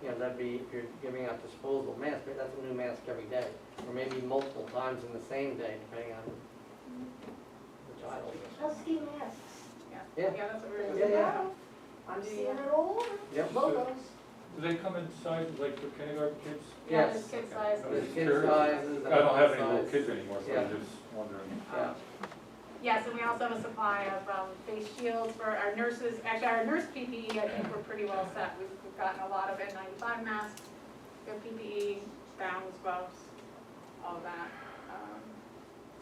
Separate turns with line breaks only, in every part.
because that'd be, if you're giving out disposable masks, but that's a new mask every day, or maybe multiple times in the same day, depending on the child.
Those ski masks.
Yeah.
Yeah, that's what
There's
we're.
Yeah,
a
yeah.
lot. I'm
Yeah.
seeing it all over.
Yep.
Logos.
Do they come inside, like for kindergarten kids?
Yeah,
Yes.
there's kid size.
Okay.
There's
Just
kid
curious.
sizes and
I don't have any
adult
little
size.
kids anymore, so
Yeah.
I'm just wondering.
Yeah.
Um, Yes, and we also have a supply of um, face shields for our nurses. Actually, our nurse PPE, I think we're pretty well set. We've we've gotten a lot of N95 masks, good PPE, E, gowns, gloves, all of that. Um,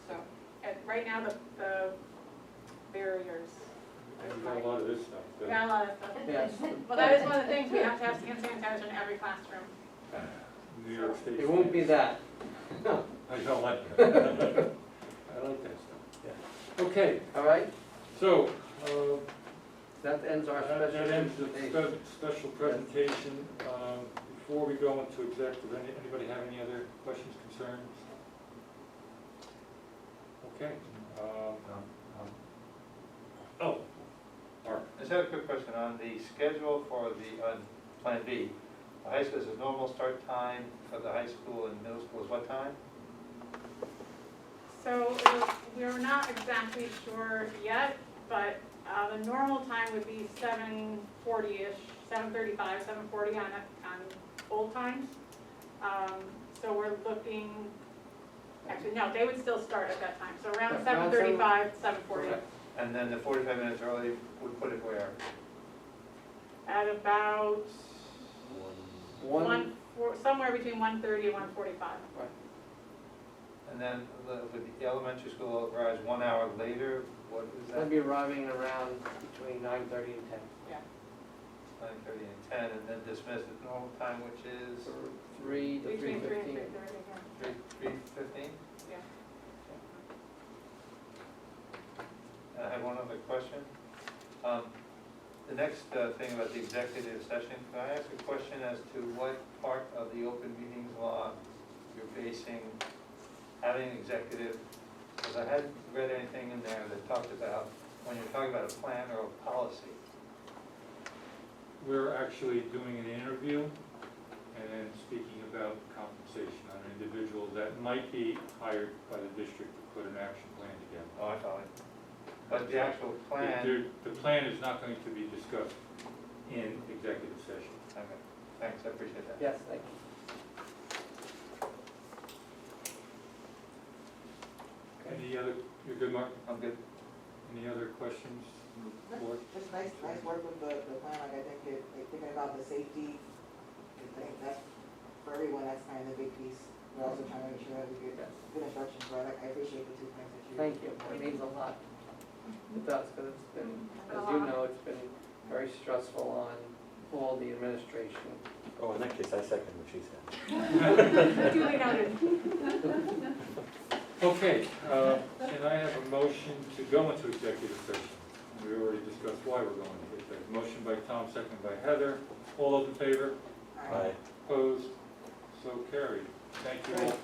So, and right now, the, the barriers.
We've got a lot of this stuff.
We
but-
got a lot of stuff.
Yes,
Well, that is one of the things, we have to have hand sanitizer in every classroom.
New York State.
it won't be that.
I don't like that. I like that
Yeah.
stuff. Okay,
All right,
so, uh,
that ends our
that
special
that ends the
presentation.
spe- special presentation. Um, Before we go into exec, does any- anybody have any other questions, concerns? Okay. um,
Um, um,
Oh, Mark.
I just have a quick question on the schedule for the, on Plan B. The high school, is the normal start time for the high school and middle school is what time?
So we're not exactly sure yet, but uh, the normal time would be seven forty-ish, seven thirty-five, seven forty on, on old times. Um, So we're looking, actually, no, they would still start at that time, so around
Yeah,
seven
around
thirty-five, seven forty.
Correct.
And then the forty-five minutes early, we put it where?
At about
One,
one, four- somewhere between one thirty and one forty-five.
And then the- with the elementary school arrives one hour later, what is
that'd
that?
be arriving around between nine thirty and ten.
Nine thirty and ten, and then dismiss at normal time, which is
Three to three
Between three and
fifteen.
three thirty, yeah.
three, three fifteen?
Yeah.
I have one other question. Um, The next uh, thing about the executive session, can I ask a question as to what part of the open meetings law you're basing having an executive? Because I hadn't read anything in there that talked about, when you're talking about a plan or a policy.
We're actually doing an interview and then speaking about compensation on an individual that might be hired by the district to put an action plan together.
Oh, I thought it. But the actual plan,
The- The the plan is not going to be discussed in executive session.
okay, thanks, I appreciate that.
Yes, thank you.
Any other, you're good, Mark?
I'm good.
Any other questions? Board?
Just nice, nice work with the, the plan, like I think it, like thinking about the safety, I think that's, for everyone, that's kind of the big piece. We're also trying to make sure that we get
Yes.
good instructions, but I, I appreciate the two things that you.
Thank you, it means a lot. It does, because it's been, as you know, it's been very stressful on all the administration.
Oh, in that case, I second what she said.
Duly noted.
Okay, uh, can I have a motion to go into executive session? We already discussed why we're going into executive. Motion by Tom, second by Heather. All those in favor?
All right.
Aye.
Opposed? So carried. Thank you all.